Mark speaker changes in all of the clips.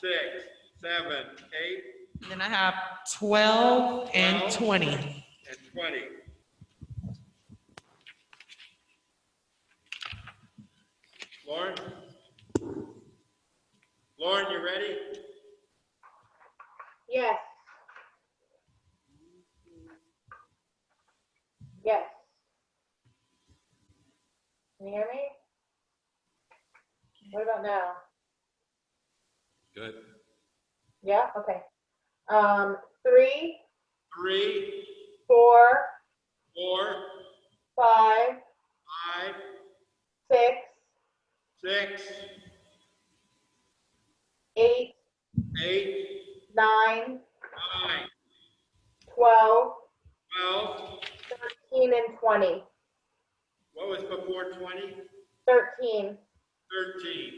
Speaker 1: six, seven, eight,
Speaker 2: Then I have 12 and 20.
Speaker 1: and twenty. Lauren? Lauren, you ready?
Speaker 3: Yes. Yes. Can you hear me? What about now?
Speaker 1: Good.
Speaker 3: Yeah, okay. Um, three,
Speaker 1: Three,
Speaker 3: four,
Speaker 1: four,
Speaker 3: five,
Speaker 1: five,
Speaker 3: six,
Speaker 1: six,
Speaker 3: eight,
Speaker 1: eight,
Speaker 3: nine,
Speaker 1: nine,
Speaker 3: twelve,
Speaker 1: twelve.
Speaker 3: thirteen, and twenty.
Speaker 1: What was before twenty?
Speaker 3: Thirteen.
Speaker 1: Thirteen.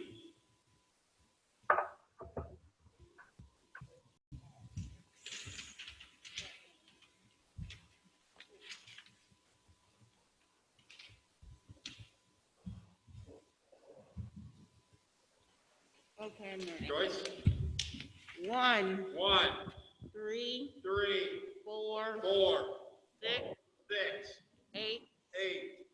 Speaker 4: Okay, I'm ready.
Speaker 1: Joyce?
Speaker 4: One,
Speaker 1: One,
Speaker 4: three,
Speaker 1: three,
Speaker 4: four,
Speaker 1: four,
Speaker 4: six,
Speaker 1: six,
Speaker 4: eight,
Speaker 1: eight,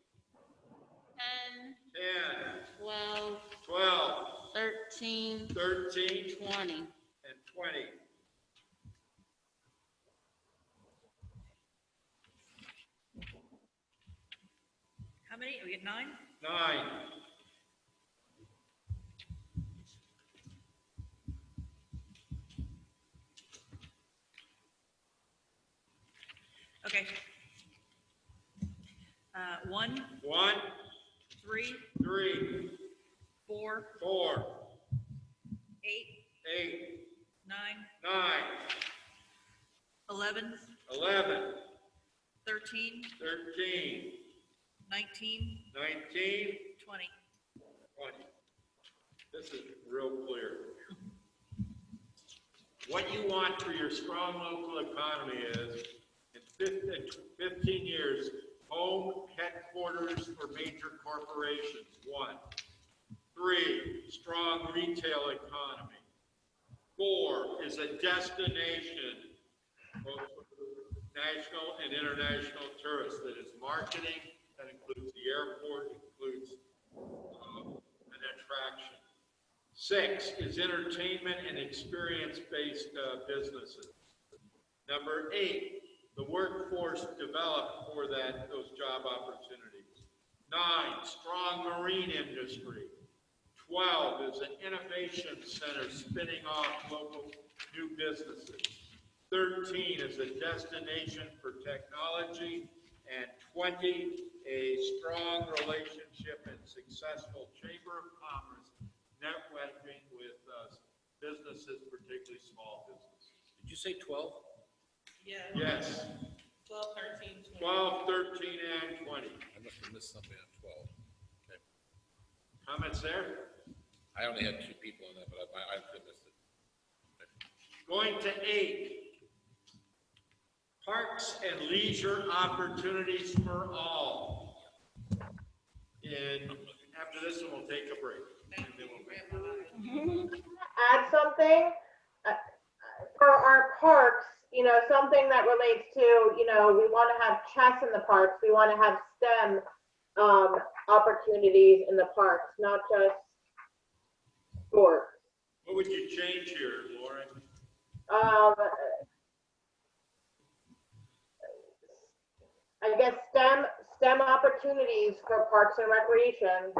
Speaker 4: ten,
Speaker 1: ten,
Speaker 4: twelve,
Speaker 1: twelve,
Speaker 4: thirteen,
Speaker 1: thirteen,
Speaker 4: twenty.
Speaker 1: and twenty.
Speaker 5: How many? We get nine?
Speaker 1: Nine.
Speaker 5: Okay. Uh, one,
Speaker 1: One,
Speaker 5: three,
Speaker 1: three,
Speaker 5: four,
Speaker 1: four,
Speaker 5: eight,
Speaker 1: eight,
Speaker 5: nine,
Speaker 1: nine,
Speaker 5: eleven,
Speaker 1: eleven,
Speaker 5: thirteen,
Speaker 1: thirteen,
Speaker 5: nineteen,
Speaker 1: nineteen,
Speaker 5: twenty.
Speaker 1: twenty. This is real clear. What you want for your strong local economy is, in fif- in fifteen years, home headquarters for major corporations, one. Three, strong retail economy. Four is a destination both for national and international tourists that is marketing, that includes the airport, includes uh, an attraction. Six is entertainment and experience-based uh, businesses. Number eight, the workforce developed for that, those job opportunities. Nine, strong marine industry. Twelve is an innovation center spinning off local new businesses. Thirteen is a destination for technology. And twenty, a strong relationship and successful Chamber of Commerce networking with uh, businesses, particularly small businesses.
Speaker 6: Did you say 12?
Speaker 1: Yes,
Speaker 4: Twelve, thirteen,
Speaker 1: 12, 13, and 20.
Speaker 6: I must have missed something on 12. Okay.
Speaker 1: Comments there?
Speaker 6: I only had two people on that, but I, I I missed it.
Speaker 1: Going to eight. Parks and leisure opportunities for all. And after this one, we'll take a break. And then we'll-
Speaker 3: add something uh, for our parks, you know, something that relates to, you know, we want to have chess in the parks, we want to have STEM um, opportunities in the parks, not just sports.
Speaker 1: What would you change here, Lauren?
Speaker 3: Um, I guess STEM, STEM opportunities for parks and recreation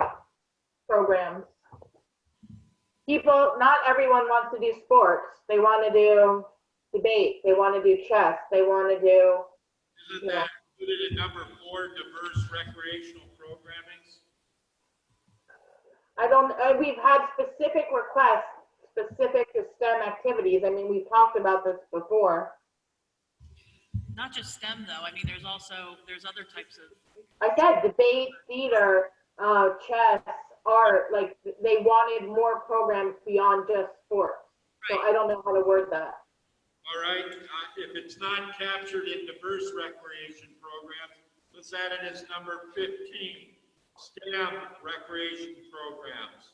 Speaker 3: programs. People, not everyone wants to do sports. They want to do debate. They want to do chess. They want to do,
Speaker 1: Isn't that included in number four, diverse recreational programming?
Speaker 3: I don't, uh, we've had specific requests specific to STEM activities. I mean, we've talked about this before.
Speaker 5: Not just STEM though. I mean, there's also, there's other types of,
Speaker 3: I said debate, theater, uh, chess, art, like they wanted more programs beyond just sports. So I don't know how to word that.
Speaker 1: All right, uh, if it's not captured in diverse recreation programs, let's add it as number fifteen, STEM recreation programs.